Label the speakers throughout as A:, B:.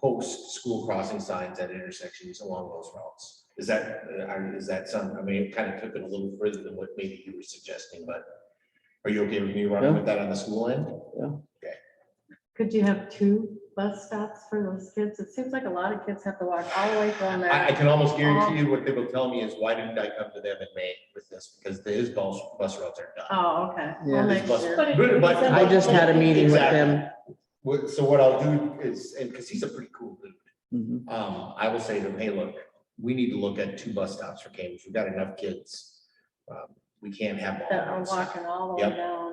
A: post school crossing signs at intersections along those routes. Is that, uh, I- is that some, I mean, it kind of took it a little further than what maybe you were suggesting, but are you okay with me running with that on the school end?
B: Could you have two bus stops for those kids? It seems like a lot of kids have to walk all the way from
A: I, I
B: there.
A: can almost guarantee
C: Um,
A: you what they will tell me is, why didn't I come to them in May with this? Because his bus, bus routes are done.
B: Oh, okay.
C: Yeah.
B: Well, next
A: Bus-
B: year.
D: But
A: But-
D: it-
A: but-
C: Um, I just had a meeting with them.
A: What- So what I'll do is, and because he's a pretty cool dude,
E: Mm-hmm.
C: Mhm.
A: um, I will say to him, hey, look, we need to look at two bus stops for Cambridge. We've got enough kids. Um, We can't have. all
B: That are
A: of them."
B: walking all the way
A: Yep.
B: down.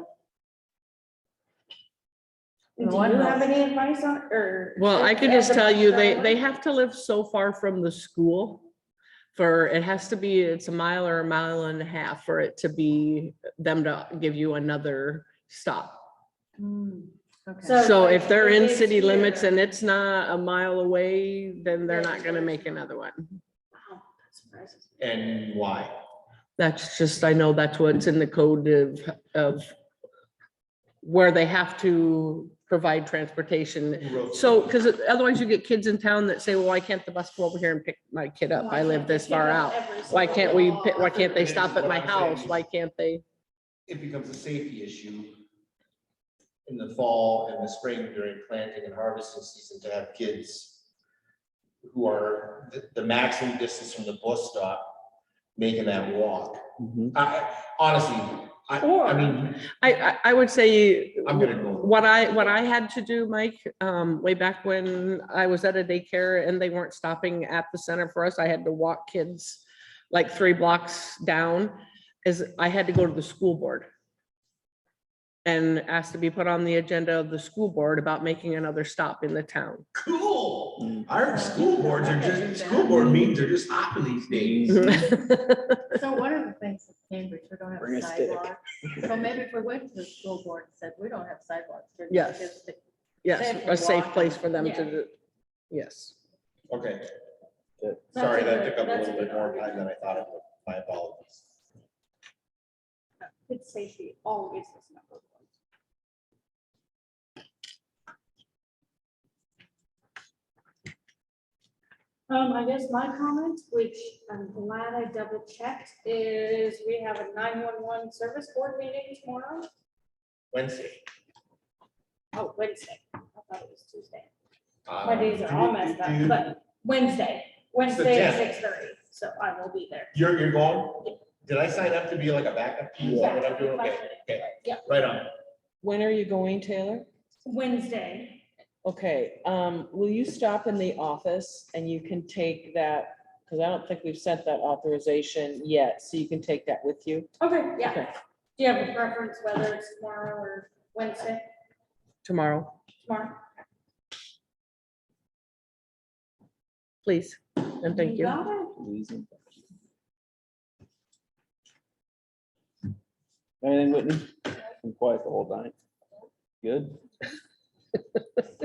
D: Do you
B: One
D: have
B: house.
D: any advice on, or?
C: Well, I could just tell you, they, they have to live so far from the school. For, it has to be, it's a mile or a mile and a half for it to be, them to give you another stop.
B: Hmm, okay.
D: So-
C: So if they're in
D: If it's
C: city limits
D: here-
C: and it's not a mile away, then they're not gonna make another one.
D: Wow, that surprises me.
A: And why?
C: That's just, I know that's what's in the code of, of where they have to provide transportation So, because otherwise you get kids in town that say, well, why can't the bus go over here and pick my kid
D: Oh,
C: up? I live this far out. Why can't we, pick- why can't they stop at my house? Why can't they?
A: It becomes a safety issue in the fall and the spring during planting and harvesting season to have kids who are the, the maximum distance from the bus stop making that walk.
E: Mm-hmm.
A: I, honestly, I, I
D: Or-
A: mean,
C: I, I, I would say,
A: I'm gonna go.
C: what I, what I had to do, Mike, um, way back when I was at a daycare and they weren't stopping at the center for us, I had to walk kids like three blocks down, is I had to go to the school board. And ask to be put on the agenda of the school board about making another stop in the town.
E: Mm-hmm.
A: Cool. Our school boards are just, school board meetings are just hopping these days.
B: So one of the things in Cambridge, we don't
C: Bring a
B: have
C: stick.
B: sidewalks. So maybe if we went to the school board and said, we don't have sidewalks. here," the
C: Yes.
B: kids that-
C: Yes,
B: Safe
C: a
B: and
C: safe
B: walk.
C: place for them to,
D: Yeah.
C: do. yes.
A: Okay.
C: Good.
A: Sorry, that
D: That's a
A: took up a little
D: good- that's a
A: bit more
D: good
A: time than I thought it would. My apologies.
D: It's safety, always is number one. Um, I guess my comment, which I'm glad I double checked, is we have a nine-one-one service board meeting tomorrow.
A: Wednesday.
D: Oh, Wednesday. I thought it was Tuesday.
A: um,
D: My days are all messed up,
A: do-
D: but Wednesday, Wednesday at
A: tenth.
D: six thirty, so I will be there.
A: You're, you're going? Did I sign up to be like a backup? Is that what I'm doing? Okay, okay.
D: Yeah.
A: Right on.
C: When are you going, Taylor?
D: Wednesday.
C: Okay, um, will you stop in the office and you can take that, because I don't think we've sent that authorization yet, so you can take that with you.
D: Okay, yeah.
C: Okay.
D: Do you have a preference whether it's tomorrow or Wednesday?
C: Tomorrow,
D: Tomorrow.
C: please, and thank you.
D: got it.
E: Anything, Whitney? Been quiet the whole time. Good?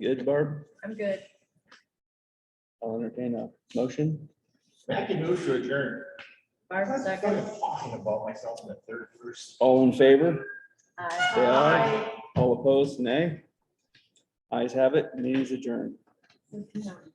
E: Good, Barb?
B: I'm good.
E: I'll entertain a motion.
A: I can move to adjourn.
B: Barbara,
A: I'm
B: second.
A: Talking about myself in the third person.
E: All in favor?
B: Aye.
E: Say aye. All opposed, nay? Ayes have it, meeting's adjourned.
B: Good to know.